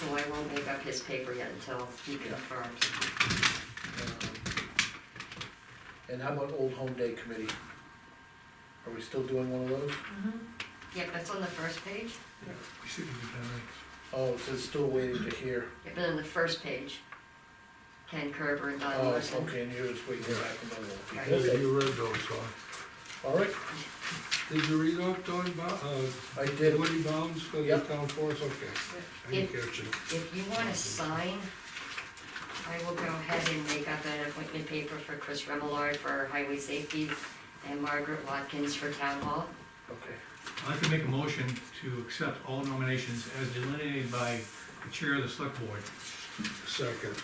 so I won't make up his paper yet until he confirms. Um, And how about Old Home Day Committee? Are we still doing one of those? Yep, that's on the first page, We should have done Oh, it says still waiting to hear. Yep, and on the first page, Ken Kerber and Don Oh, Larson. okay, and you're just waiting back on the Right. that. Yeah, you read those, huh? All right, Did you read up Don Bo, uh, I did. Woody Bounds for the Yep. town force, okay. I If- didn't catch it. If you want to sign, I will go ahead and make up an appointment paper for Chris Remillard for highway safety and Margaret Watkins for town hall. Okay. I'd like to make a motion to accept all nominations as delineated by the chair of the select board. Second,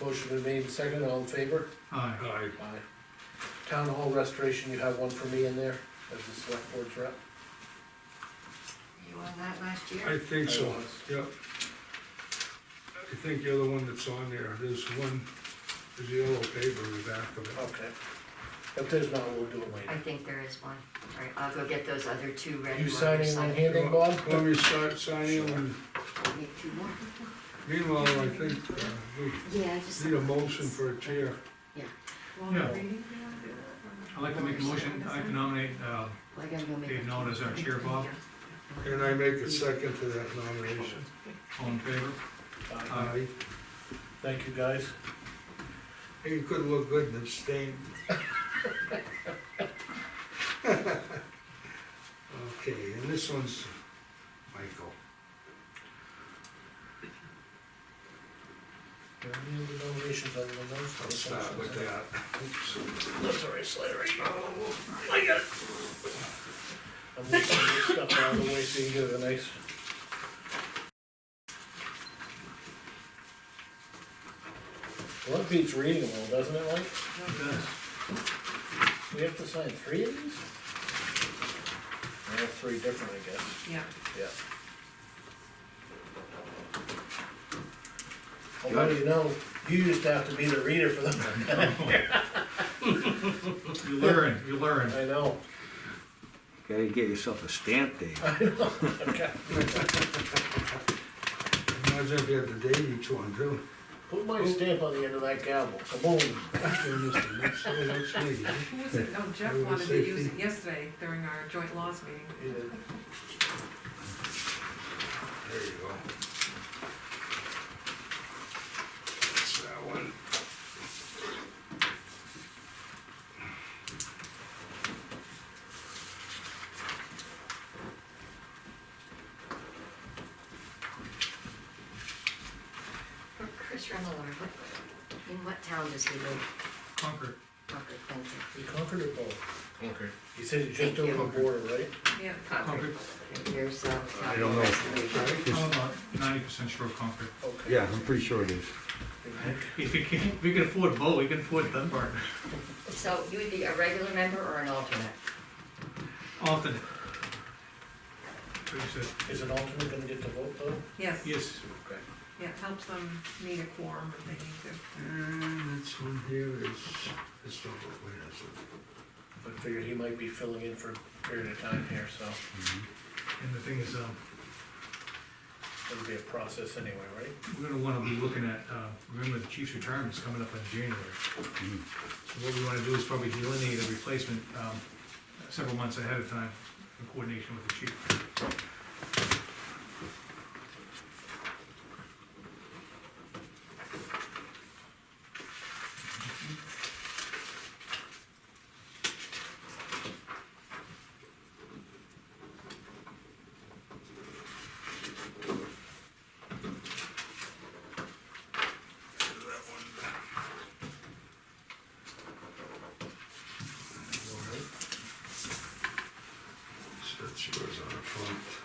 Motion been made, and seconded, all in favor? Aye. aye. Aye. Town Hall Restoration, you have one for me in there as the select board's rep? You on that last I year? think so, I was. yep. I think you're the one that's on there, there's one, there's yellow paper in the back of it. Okay. If there's not, we'll do it I later. think there is one. All right, I'll go get those other two red You ones. signing on here then, Bob? Let me start signing, and I'll make two more. meanwhile, I think, uh, we Yeah, I just. need a motion for a chair. Yeah. I'd like to make a motion, I'd like to nominate, uh, Well, I gotta go make. Dave a- Nolan as our chair, Bob. And I make a second to that nomination. all in favor? Aye. Aye. Thank you, guys. You could look good in the stain. Okay, and this one's Michael. Are there any other nominations other than those? I'll start with that. Oops. That's all right, Slattery. Oh, I'm leaving this stuff out of the way so you can get a nice. Well, that beats reading them all, doesn't it, Mike? Yes. We have to sign three of these? All three different, I guess, Yeah, yeah. Although, you know, you used to have to be the reader for them. You learn, you learn. I know. Gotta get yourself a stamp, Dave. Imagine if you had to date each one too. Put my stamp on the end of that gavel, kaboom. Turn this one, that's- oh, that's me. Who was it? Oh, Jeff Who was wanted to it? use it yesterday during our joint laws meeting. There you go. That's that one. For Chris Remillard, what, in what town does he live? Concord. Concord, thank you. You conquered it both. Concord. You said you just over the border, right? Yeah. Concord. Here's, uh. I don't know. Resolution. I'm about ninety percent sure of Concord. Okay. Yeah, I'm pretty sure it is. If we can, if we can afford Bo, we can afford Dunbar. So you would be a regular member or an alternate? Alternate. Pretty sure. Is an alternate gonna get to vote though? Yes, yeah, Yes, Okay. it helps them meet a quorum if they need to. And this one here is, it's not, wait, that's it. I figured he might be filling in for a period of time here, so and the thing is, um, it'll be a process anyway, right? we're gonna wanna be looking at, uh, remember the chief's retirement's coming up in January. So what we wanna do is probably delineate a replacement, um, several months ahead of time in coordination with the chief. So that's yours on the front.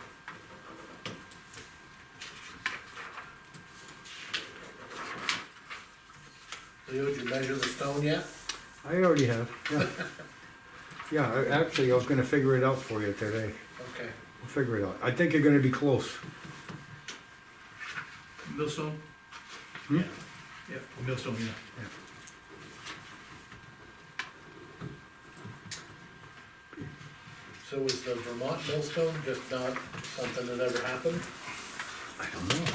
Leo, did you measure the stone yet? I already have, yeah. Yeah, I- actually, I was gonna figure it out for you today. Okay. I'll figure it out. I think you're gonna be close. Millstone? Hmm? Yeah, yeah, Millstone, yeah. So is the Vermont millstone just not something that ever happened? I don't know.